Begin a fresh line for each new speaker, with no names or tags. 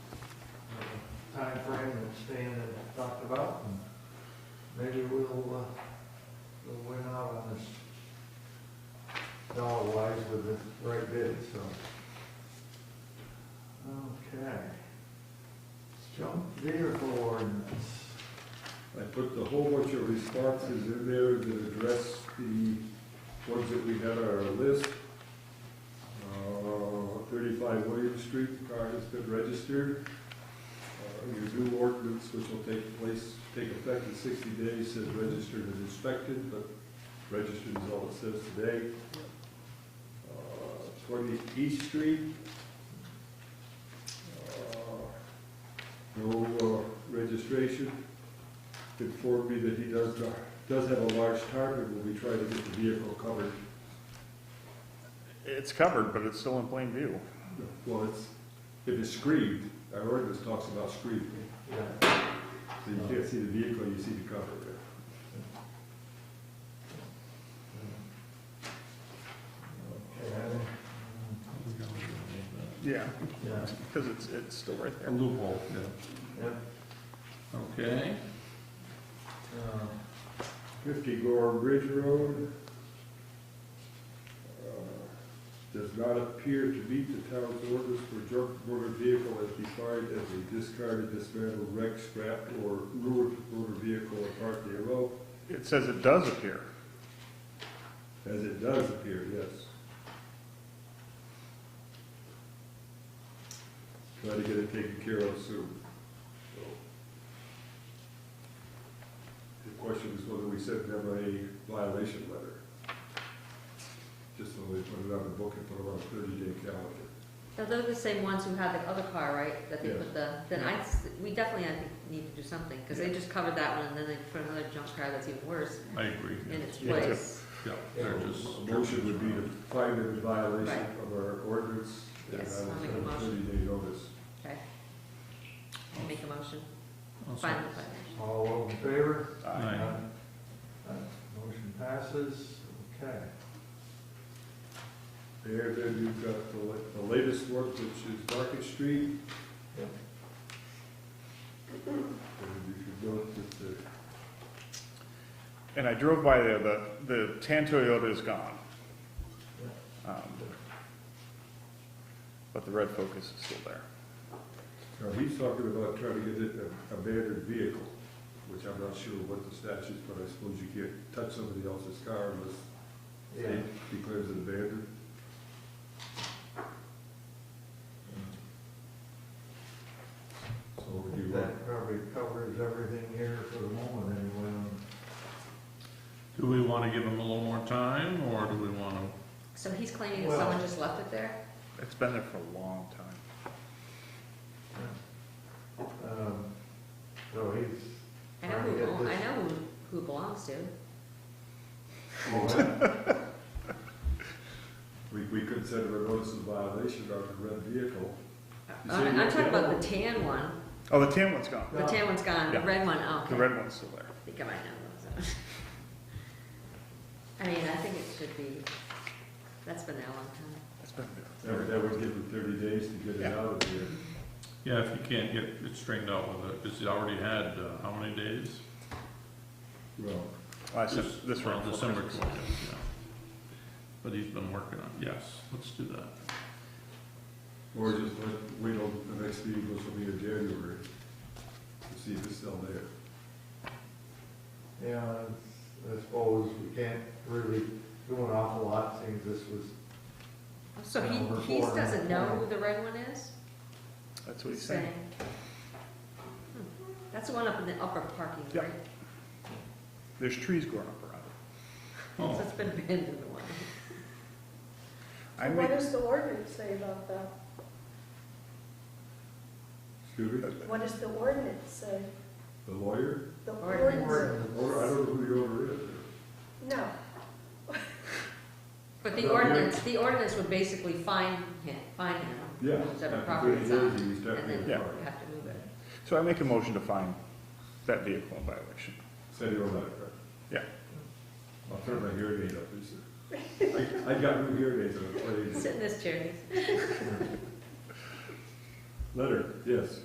time frame that Stan had talked about. and Maybe we'll, uh, we'll win out on this dollar wise with the right bid, so. Okay. Junk vehicle ordinance.
I put a whole bunch of responses in there that address the ones that we had on our list. Uh, Thirty-five William Street, the car has been registered. Uh, Your new ordinance, which will take place, take effect in sixty days, says registered and inspected, but registered is all it says today. Uh, Twenty East Street. Uh, No uh, registration informed me that he does, does have a large target when we try to get the vehicle covered.
It's covered, but it's still in plain view.
Well, it's, if it's screened, our ordinance talks about screening,
Yeah.
so you can't see the vehicle, you see the cover.
Okay.
Yeah.
Yeah,
Because it's, it's still right there.
loophole, yeah.
yeah.
Okay,
Uh,
Fifty Gore Bridge Road. uh, Does not appear to meet the town's orders for junk motor vehicle as defined as a discarded, dismantled, wrecked, scrapped, or ruined motor vehicle or part thereof,
It says it does appear.
as it does appear, yes. Try to get it taken care of soon. So, The question is whether we send them a violation letter. Just so they put it on the book and put it on a thirty-day calendar.
Now, they're the same ones who had the other car, right, that they
Yeah.
put the, then I, s- we definitely, I think, need to do something, because they just covered that one, and then they put another junk car that's even worse
I agree.
in its
Yeah.
place.
Yeah, they're just.
A Motion would be to find them in violation
Right.
of our ordinance. and
Yes,
I will
I'll make a
send a
motion.
Thirty-day notice.
Okay. Make a motion,
I'll
final
second.
violation.
All those in favor?
Aye.
Aye. Motion passes, okay.
There, then you've got the la- the latest work, which is Market Street.
Yep.
And you should note that the,
And I drove by there, the, the tan Toyota is gone. Um, But the red Focus is still there.
now, he's talking about trying to get it a abandoned vehicle, which I'm not sure what the statute, but I suppose you can't touch somebody else's car unless
Yeah.
they declares it abandoned. So do you want,
That probably covers everything here for the moment, anyway.
Do we want to give them a little more time, or do we want to?
So he's claiming that
Well-
someone just left it there?
It's been there for a long time.
Um, So he's.
I know
trying to
who,
get
it belo- I
this-
know who, who it belongs to.
we, we could send him a notice of violation on the red vehicle. You say
I'm I'm
red
talking about
vehicle?
the tan one,
Oh, the tan one's gone.
the tan one's gone, the
Yeah.
red one, oh,
The
okay.
red one's still there.
I think I might know those. I mean, I think it should be, that's been there a long time.
It's been
That would-
there.
that would give him thirty days to get it
Yeah.
out of here.
Yeah, if you can't get it straightened out with it, because you already had, uh, how many days?
Well,
I sent this
Well,
round. for
December
Christmas.
twentieth, yeah. But he's been working on, yes, let's do that.
Or just let, wait till the next meeting, which will be in January, to see if it's still there.
Yeah, I suppose we can't really do an awful lot, seeing this was.
So
Yeah, we're
he, he
four.
doesn't know who the red one is?
That's what he's
He's
saying.
Hmm. That's the one up in the upper parking,
Yeah.
right?
There's trees growing up around it.
So
Oh,
it's been abandoned a while.
I
What
make,
does the ordinance say about that?
Excuse me,
What does the ordinance say?
the lawyer?
The
Ordinance.
ordinance,
Or, I don't know who the owner is.
no,
But
Yeah.
the ordinance, the ordinance would basically fine him, fine him.
Yeah.
Whichever
after
property
30
it's on,
days, He's
and then
definitely
you
Yeah.
fine.
have to move it.
so I make a motion to find that vehicle in violation.
Send you a letter.
Yeah.
I'll turn my hearing aid up, please. sir. I, I got new hearing aids, I'm afraid.
Sit in this chair, Denise.
Letter, yes.